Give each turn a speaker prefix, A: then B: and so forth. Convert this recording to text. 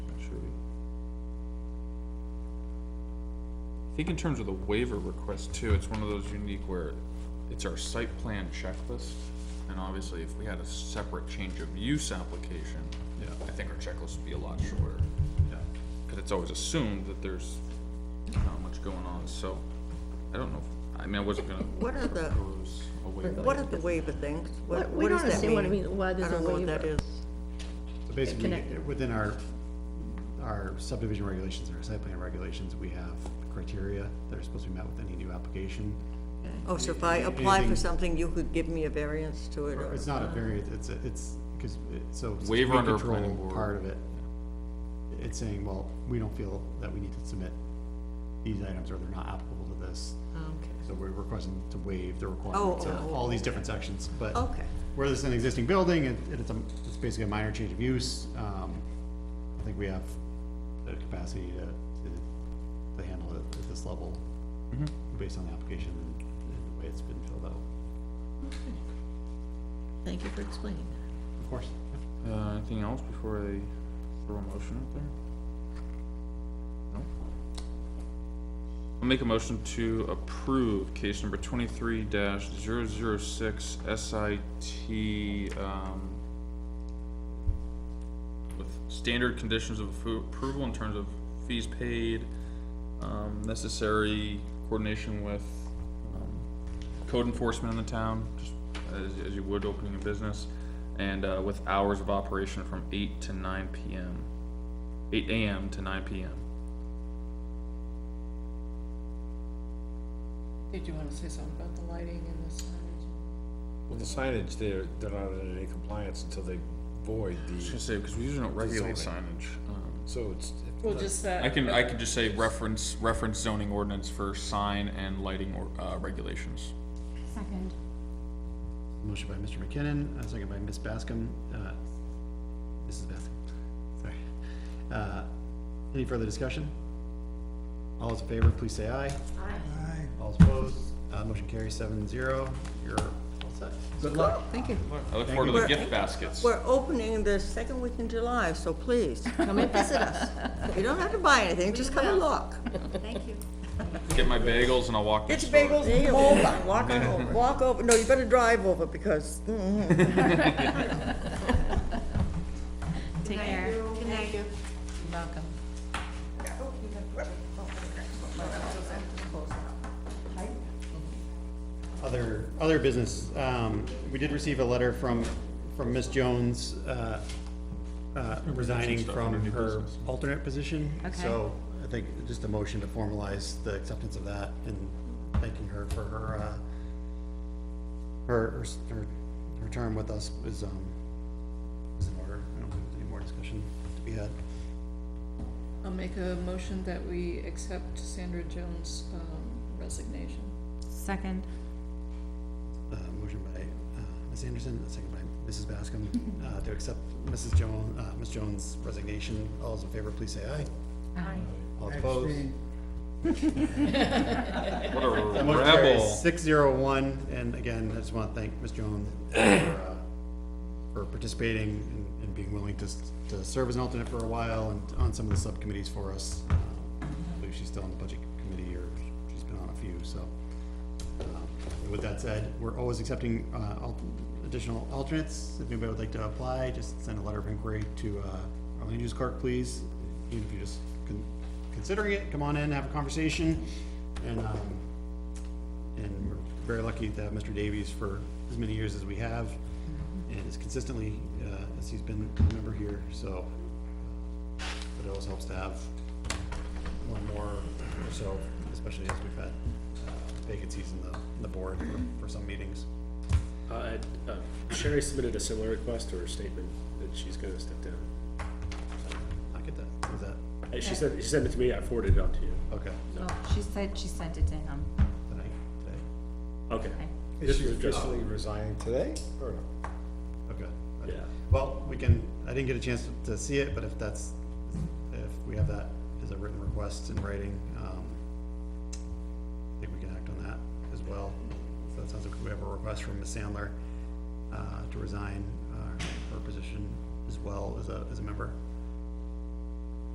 A: think in terms of the waiver request too, it's one of those unique where it's our site plan checklist. And obviously, if we had a separate change of use application,
B: Yeah.
A: I think our checklist would be a lot shorter.
B: yeah.
A: Cause it's always assumed that there's not much going on, so I don't know. I mean, I wasn't gonna
C: What are the-
A: propose a waiver.
C: What are the waiver things? What,
D: We
C: what
D: don't
C: does that
D: understand
C: mean?
D: what it means, why there's a
C: I don't know what that
D: waiver.
C: is.
B: So basically,
D: connected.
B: within our, our subdivision regulations, and our site plan regulations, we have criteria that are supposed to be met with any new application.
C: Oh, so if I apply for
B: Anything-
C: something, you could give me a variance to it, or,
B: It's not a variance, it's, a- it's, because, so. since
A: Waiver
B: we
A: under a
B: control
A: planning board.
B: Part of it, it's saying, well, we don't feel that we need to submit these items, or they're not applicable to this. So we're requesting to waive the requirements
C: oh,
B: of
C: oh,
B: all these different sections, but.
C: Okay.
B: Where this is an existing building, it, it's a, it's basically a minor change of use, um, I think we have the capacity to, to, to handle it at this level.
D: Mm-hmm.
B: Based on the application and and the way it's been filled out,
D: Thank you for explaining that.
B: of course.
A: Uh, anything else before I throw a motion up there? No? I'll make a motion to approve case number twenty-three dash zero zero six SIT, um, with standard conditions of appro- approval in terms of fees paid, um, necessary coordination with, um, code enforcement in the town, just as, as you would opening a business, and, uh, with hours of operation from eight to nine PM, eight AM to nine PM.
E: Did you wanna say something about the lighting and the signage?
F: Well, the signage there, they're not in any compliance until they void
A: I was
F: the,
A: gonna say, because we usually don't regulate
F: Zoning.
A: signage. um,
F: so it's.
E: Well, just that.
A: I can, I can just say reference, reference zoning ordinance for sign and lighting or, uh, regulations.
G: Second.
B: Motion by Mr. McKinnon, a second by Ms. Bascom, uh, Mrs. Bascom, sorry. Uh, any further discussion? All those in favor, please say aye. Aye. All opposed, uh, motion carries seven zero, you're all set. Good luck.
C: thank you.
A: I look forward to the
C: you.
A: gift baskets.
C: We're opening the second week in July, so please, come and visit us. You don't have to buy anything, just come and look.
G: Thank you.
A: Get my bagels and I'll walk to the
C: Get your
A: store.
C: bagels, hold on, walk on over, walk over, no, you better drive over, because, mm,
G: Take care. Good night.
E: Malcolm.
B: Other, other business, um, we did receive a letter from, from Ms. Jones, uh, uh, resigning
A: stuff
B: from
A: under new
B: her
A: business.
B: alternate position.
G: Okay.
B: So I think just a motion to formalize the acceptance of that and thanking her for her, uh, her, her s- her, her term with us is, um, is in order. I don't think there's any more discussion to be had.
E: I'll make a motion that we accept Sandra Jones' um, resignation.
G: Second.
B: Uh, motion by, uh, Ms. Anderson, a second by Mrs. Bascom, uh, to accept Mrs. Jones, uh, Ms. Jones' resignation. All those in favor, please say aye.
G: Aye.
B: All opposed?
A: What a
B: Motion carries
A: rebel.
B: six zero one, and again, I just want to thank Ms. Jones for, uh, for participating and, and being willing to, s- to serve as an alternate for a while and on some of the subcommittees for us. Um, I believe she's still on the budget committee, or she's been on a few, so. um, and With that said, we're always accepting, uh, al- additional alternates. If anybody would like to apply, just send a letter of inquiry to, uh, our land use clerk, please. Even if you're just con- considering it, come on in, have a conversation, and, um, and we're very lucky to have Mr. Davies for as many years as we have, and as consistently, uh, as he's been a member here, so. But it always helps to have one more or so, especially as we've had uh, vacancies in the, in the board for, for some meetings.
F: Uh, uh, Sherry submitted a similar request or statement that she's gonna step down.
B: I get that, is that,
F: Uh, She said, she sent it to me, I forwarded it on to you.
B: okay,
G: Well, she said she sent it to him.
B: tonight, today,
F: Okay.
G: Okay.
F: This was just-
H: resigning today, or no?
B: okay.
F: Yeah.
B: Well, we can, I didn't get a chance to- to see it, but if that's, if we have that as a written request in writing, um, I think we can act on that as well. So that sounds like we have a request from Ms. Sandler, uh, to resign, uh, her position as well as a, as a member.